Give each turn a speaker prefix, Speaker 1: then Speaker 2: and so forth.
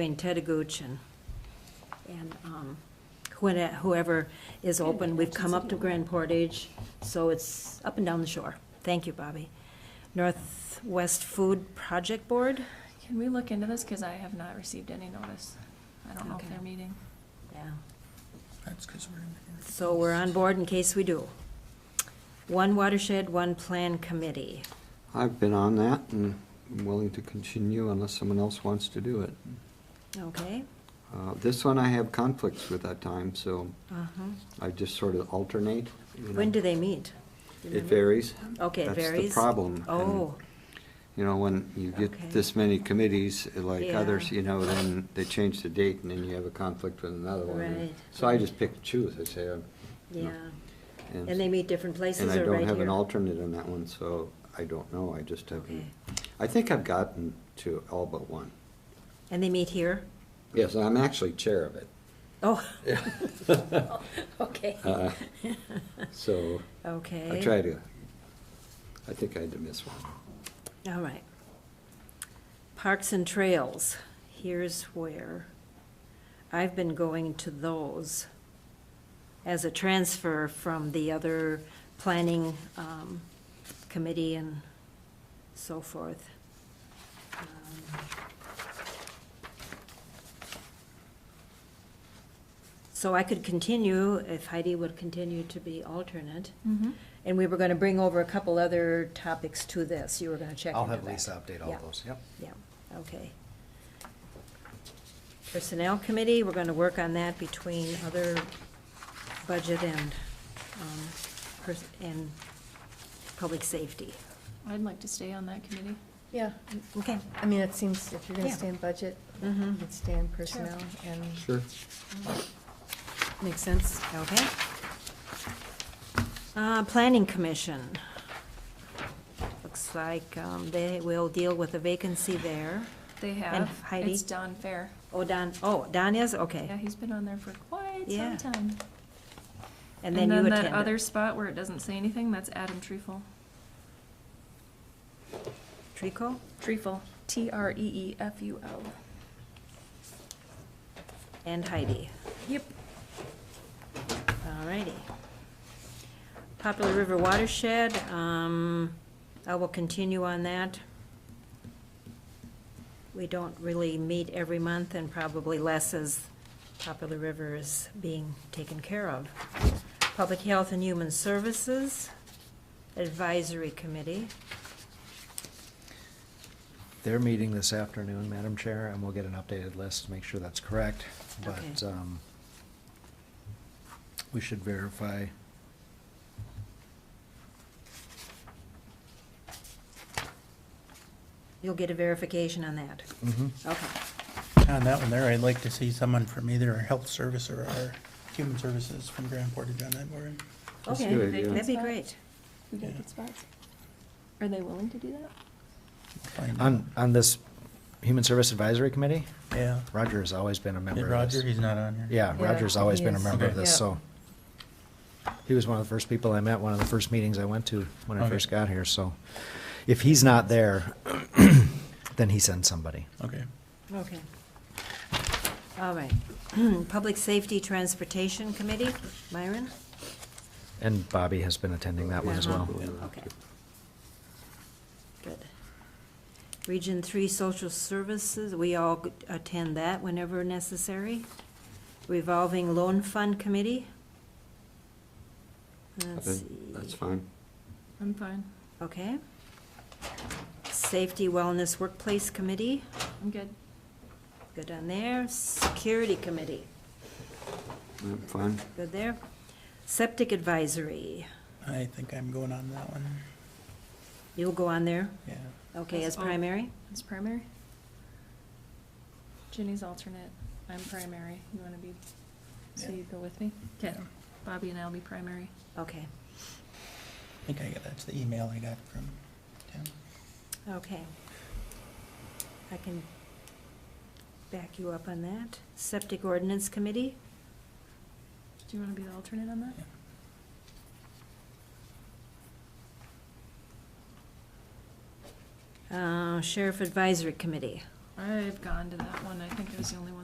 Speaker 1: between Ted Gooch and, and um, whoe- whoever is open. We've come up to Grand Portage, so it's up and down the shore. Thank you, Bobby. Northwest Food Project Board?
Speaker 2: Can we look into this? Because I have not received any notice. I don't know
Speaker 1: Okay.
Speaker 2: if they're meeting.
Speaker 1: Yeah.
Speaker 3: That's because we're in.
Speaker 1: So we're on board in case we do. One Watershed, One Plan Committee.
Speaker 4: I've been on that and I'm willing to continue unless someone else wants to do it.
Speaker 1: Okay?
Speaker 4: Uh, This one I have conflicts with at times, so
Speaker 1: Uh-huh.
Speaker 4: I just sort of alternate. you know.
Speaker 1: When do they meet? Do you
Speaker 4: It
Speaker 1: remember?
Speaker 4: varies.
Speaker 1: Okay, it
Speaker 4: That's the
Speaker 1: varies?
Speaker 4: problem. and,
Speaker 1: Oh,
Speaker 4: You know, when you
Speaker 1: Okay.
Speaker 4: get this many committees uh, like
Speaker 1: Yeah.
Speaker 4: others, you know, then they change the date and then you have a conflict with another one.
Speaker 1: Right.
Speaker 4: So I just pick and choose, I say. I'm- you know,
Speaker 1: yeah. And they meet different places or
Speaker 4: And
Speaker 1: right
Speaker 4: I
Speaker 1: here?
Speaker 4: don't have an alternate on that one, so I don't know. I just haven't.
Speaker 1: Okay.
Speaker 4: I think I've gotten to all but one.
Speaker 1: And they meet here?
Speaker 4: Yes, I'm actually chair of it.
Speaker 1: Oh. Okay.
Speaker 4: Uh, So
Speaker 1: Okay.
Speaker 4: I try to, I think I had to miss one.
Speaker 1: All right. Parks and Trails, here's where I've been going to those as a transfer from the other planning um, committee and so forth. Um, So I could continue, if Heidi would continue to be alternate.
Speaker 2: Mm-hmm.
Speaker 1: And we were gonna bring over a couple other topics to this, you were gonna check
Speaker 5: I'll
Speaker 1: into
Speaker 5: have
Speaker 1: that.
Speaker 5: Lisa update all
Speaker 1: Yeah.
Speaker 5: those, yep.
Speaker 1: Yeah, okay. Personnel committee, we're gonna work on that between other budget and, um, pers- and public safety.
Speaker 2: I'd like to stay on that committee.
Speaker 6: Yeah,
Speaker 1: Okay,
Speaker 6: I mean, it seems if you're gonna
Speaker 1: Yeah.
Speaker 6: stay in budget, you
Speaker 1: Mhm.
Speaker 6: could stay in personnel and.
Speaker 4: Sure.
Speaker 6: Makes sense.
Speaker 1: okay. Uh, planning commission. Looks like, um, they will deal with a vacancy there.
Speaker 2: They
Speaker 1: And
Speaker 2: have.
Speaker 1: Heidi?
Speaker 2: It's Don Fair.
Speaker 1: Oh, Don, oh, Don is,
Speaker 2: Yeah,
Speaker 1: okay.
Speaker 2: he's been on there for quite
Speaker 1: Yeah.
Speaker 2: some time.
Speaker 1: And then you attended.
Speaker 2: that other spot where it doesn't say anything, that's Adam Treeful.
Speaker 1: Trico?
Speaker 2: Treeful, E T-R-E-E-F-U-L.
Speaker 1: And Heidi.
Speaker 2: Yep.
Speaker 1: All righty. Popular River Watershed, um, I will continue on that. We don't really meet every month and probably less as Popular River is being taken care of. Public Health and Human Services Advisory Committee.
Speaker 5: They're meeting this afternoon, Madam Chair, and we'll get an updated list to make sure that's correct. But
Speaker 1: Okay.
Speaker 5: um, we should verify.
Speaker 1: You'll get a verification on that.
Speaker 5: Mhm.
Speaker 4: Mm-hmm.
Speaker 1: Okay.
Speaker 7: On that one there, I'd like to see someone from either our health service or our human services from Grand Portage on that board.
Speaker 4: That's
Speaker 1: Okay,
Speaker 4: good, yeah.
Speaker 1: that'd be great.
Speaker 2: We got good spots. Are they willing to do that?
Speaker 7: Find-
Speaker 5: On, on this Human Service Advisory Committee,
Speaker 7: Yeah.
Speaker 5: Roger has always been a
Speaker 7: Did
Speaker 5: member of
Speaker 7: Roger,
Speaker 5: this.
Speaker 7: he's not on here.
Speaker 5: Yeah,
Speaker 6: Yeah,
Speaker 5: Roger's always
Speaker 6: he
Speaker 5: been a
Speaker 6: is.
Speaker 5: member of
Speaker 7: Okay.
Speaker 5: this,
Speaker 6: Yeah.
Speaker 5: so. He was one of the first people I met, one of the first meetings I went to when I
Speaker 7: Okay.
Speaker 5: first got here, so. If he's not there, then he sends somebody.
Speaker 7: Okay.
Speaker 1: Okay. All right. Public Safety Transportation Committee, Myron?
Speaker 5: And Bobby has been attending that one as well.
Speaker 1: Uh-huh. Okay. Good. Region Three Social Services, we all g- attend that whenever necessary. Revolving Loan Fund Committee? Let's
Speaker 4: That's
Speaker 1: see.
Speaker 4: that's fine.
Speaker 2: I'm fine.
Speaker 1: Okay. Safety Wellness Workplace Committee,
Speaker 2: I'm good.
Speaker 1: good on there. Security Committee,
Speaker 4: I'm fine.
Speaker 1: good there. Septic Advisory,
Speaker 7: I think I'm going on that one.
Speaker 1: You'll go on there,
Speaker 7: Yeah.
Speaker 1: okay, as
Speaker 2: Yes, I'll-
Speaker 1: primary?
Speaker 2: It's primary? Jenny's alternate, I'm primary, you wanna be, so
Speaker 7: Yeah.
Speaker 2: you go with me? Okay,
Speaker 7: Yeah.
Speaker 2: Bobby and I'll be primary.
Speaker 1: Okay,
Speaker 7: I think I got, that's the email I got from Tim.
Speaker 1: okay. I can back you up on that. Septic Ordinance Committee,
Speaker 2: Do you wanna be the alternate on that?
Speaker 7: Yeah.
Speaker 1: uh, Sheriff Advisory Committee.
Speaker 2: I've gone to that one. I think I was the only one